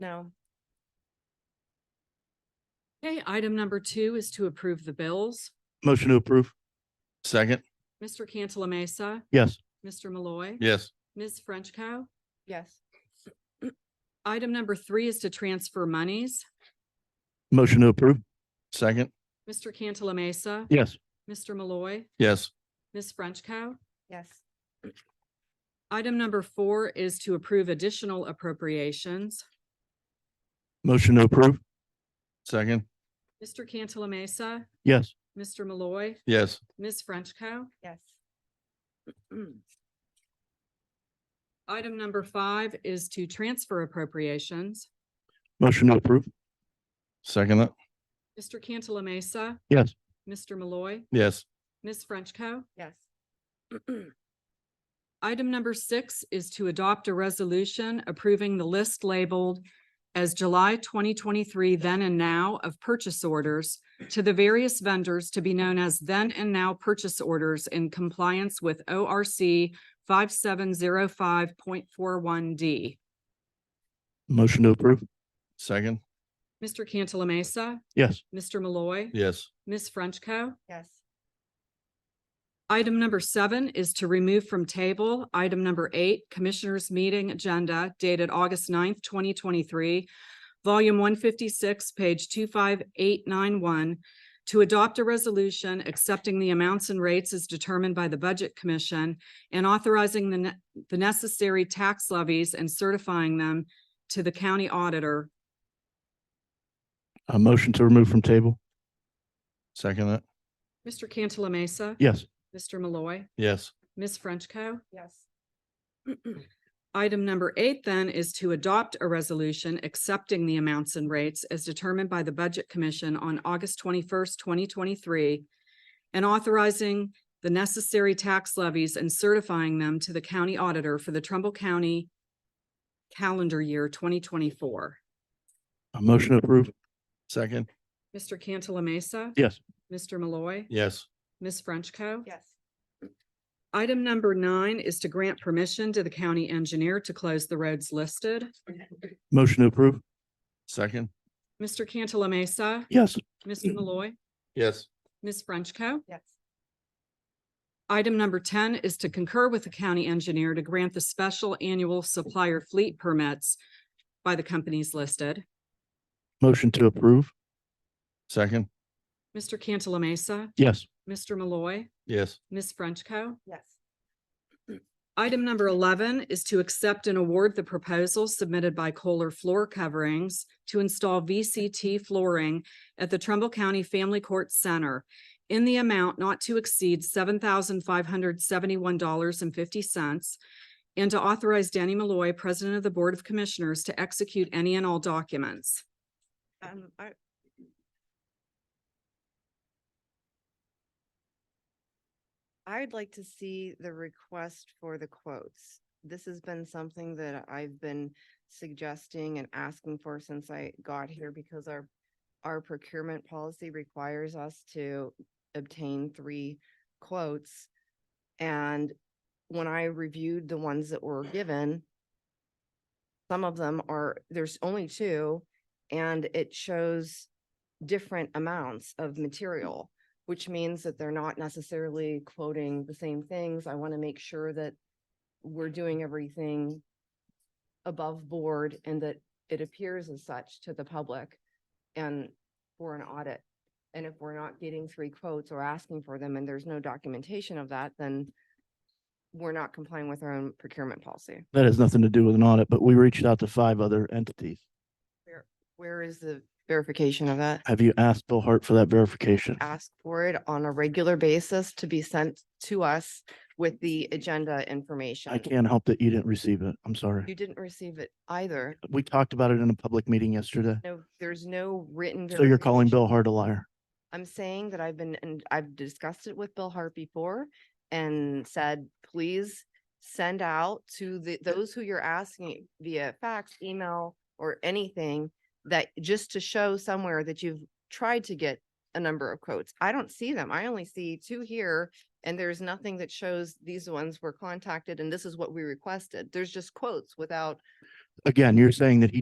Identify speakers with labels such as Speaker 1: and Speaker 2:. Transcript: Speaker 1: No.
Speaker 2: Okay, item number two is to approve the bills.
Speaker 3: Motion to approve. Second.
Speaker 2: Mr. Cantala Mesa,
Speaker 3: Yes.
Speaker 2: Mr. Malloy.
Speaker 3: Yes.
Speaker 2: Ms. Frenchco.
Speaker 1: Yes.
Speaker 2: Item number three is to transfer monies.
Speaker 3: Motion to approve. Second.
Speaker 2: Mr. Cantala Mesa,
Speaker 3: Yes.
Speaker 2: Mr. Malloy,
Speaker 3: Yes.
Speaker 2: Ms. Frenchco.
Speaker 1: Yes.
Speaker 2: Item number four is to approve additional appropriations.
Speaker 3: Motion to approve. Second.
Speaker 2: Mr. Cantala Mesa,
Speaker 3: Yes.
Speaker 2: Mr. Malloy,
Speaker 3: Yes.
Speaker 2: Ms. Frenchco.
Speaker 1: Yes.
Speaker 2: Item number five is to transfer appropriations.
Speaker 3: Motion to approve. Second that.
Speaker 2: Mr. Cantala Mesa.
Speaker 3: Yes.
Speaker 2: Mr. Malloy,
Speaker 3: Yes.
Speaker 2: Ms. Frenchco.
Speaker 1: Yes.
Speaker 2: Item number six is to adopt a resolution approving the list labeled as July twenty twenty-three then and now of purchase orders to the various vendors to be known as then and now purchase orders in compliance with O R C five seven zero five point four one D.
Speaker 3: Motion to approve. Second.
Speaker 2: Mr. Cantala Mesa,
Speaker 3: Yes.
Speaker 2: Mr. Malloy,
Speaker 3: Yes.
Speaker 2: Ms. Frenchco.
Speaker 1: Yes.
Speaker 2: Item number seven is to remove from table item number eight, Commissioners Meeting Agenda dated August 9th, twenty twenty-three, volume one fifty-six, page two five eight nine one, to adopt a resolution accepting the amounts and rates as determined by the Budget Commission and authorizing the ne- the necessary tax levies and certifying them to the county auditor.
Speaker 3: A motion to remove from table. Second that.
Speaker 2: Mr. Cantala Mesa.
Speaker 3: Yes.
Speaker 2: Mr. Malloy.
Speaker 3: Yes.
Speaker 2: Ms. Frenchco.
Speaker 1: Yes.
Speaker 2: Item number eight then is to adopt a resolution accepting the amounts and rates as determined by the Budget Commission on August twenty-first, twenty twenty-three, and authorizing the necessary tax levies and certifying them to the county auditor for the Trumbull County calendar year twenty twenty-four.
Speaker 3: A motion to approve. Second.
Speaker 2: Mr. Cantala Mesa.
Speaker 3: Yes.
Speaker 2: Mr. Malloy.
Speaker 3: Yes.
Speaker 2: Ms. Frenchco.
Speaker 1: Yes.
Speaker 2: Item number nine is to grant permission to the county engineer to close the roads listed.
Speaker 3: Motion to approve. Second.
Speaker 2: Mr. Cantala Mesa.
Speaker 3: Yes.
Speaker 2: Mr. Malloy.
Speaker 3: Yes.
Speaker 2: Ms. Frenchco.
Speaker 1: Yes.
Speaker 2: Item number ten is to concur with the county engineer to grant the special annual supplier fleet permits by the companies listed.
Speaker 3: Motion to approve. Second.
Speaker 2: Mr. Cantala Mesa,
Speaker 3: Yes.
Speaker 2: Mr. Malloy,
Speaker 3: Yes.
Speaker 2: Ms. Frenchco.
Speaker 1: Yes.
Speaker 2: Item number eleven is to accept and award the proposal submitted by Kohler Floor Coverings to install VCT flooring at the Trumbull County Family Court Center in the amount not to exceed seven thousand five hundred seventy-one dollars and fifty cents and to authorize Danny Malloy, President of the Board of Commissioners, to execute any and all documents.
Speaker 1: Um, I. I'd like to see the request for the quotes. This has been something that I've been suggesting and asking for since I got here because our, our procurement policy requires us to obtain three quotes. And when I reviewed the ones that were given, some of them are, there's only two and it shows different amounts of material, which means that they're not necessarily quoting the same things. I want to make sure that we're doing everything above board and that it appears as such to the public and for an audit. And if we're not getting three quotes or asking for them and there's no documentation of that, then we're not complying with our own procurement policy.
Speaker 3: That has nothing to do with an audit, but we reached out to five other entities.
Speaker 1: Where is the verification of that?
Speaker 3: Have you asked Bill Hart for that verification?
Speaker 1: ask for it on a regular basis to be sent to us with the agenda information.
Speaker 3: I can't help that you didn't receive it. I'm sorry.
Speaker 1: You didn't receive it either.
Speaker 3: We talked about it in a public meeting yesterday.
Speaker 1: No, there's no written.
Speaker 3: So you're calling
Speaker 1: verification.
Speaker 3: Bill Hart a liar.
Speaker 1: I'm saying that I've been, and I've discussed it with Bill Hart before and said, please send out to the, those who you're asking via fax, email, or anything that, just to show somewhere that you've tried to get a number of quotes. I don't see them. I only see two here, and there's nothing that shows these ones were contacted and this is what we requested. There's just quotes without
Speaker 3: Again, you're saying that he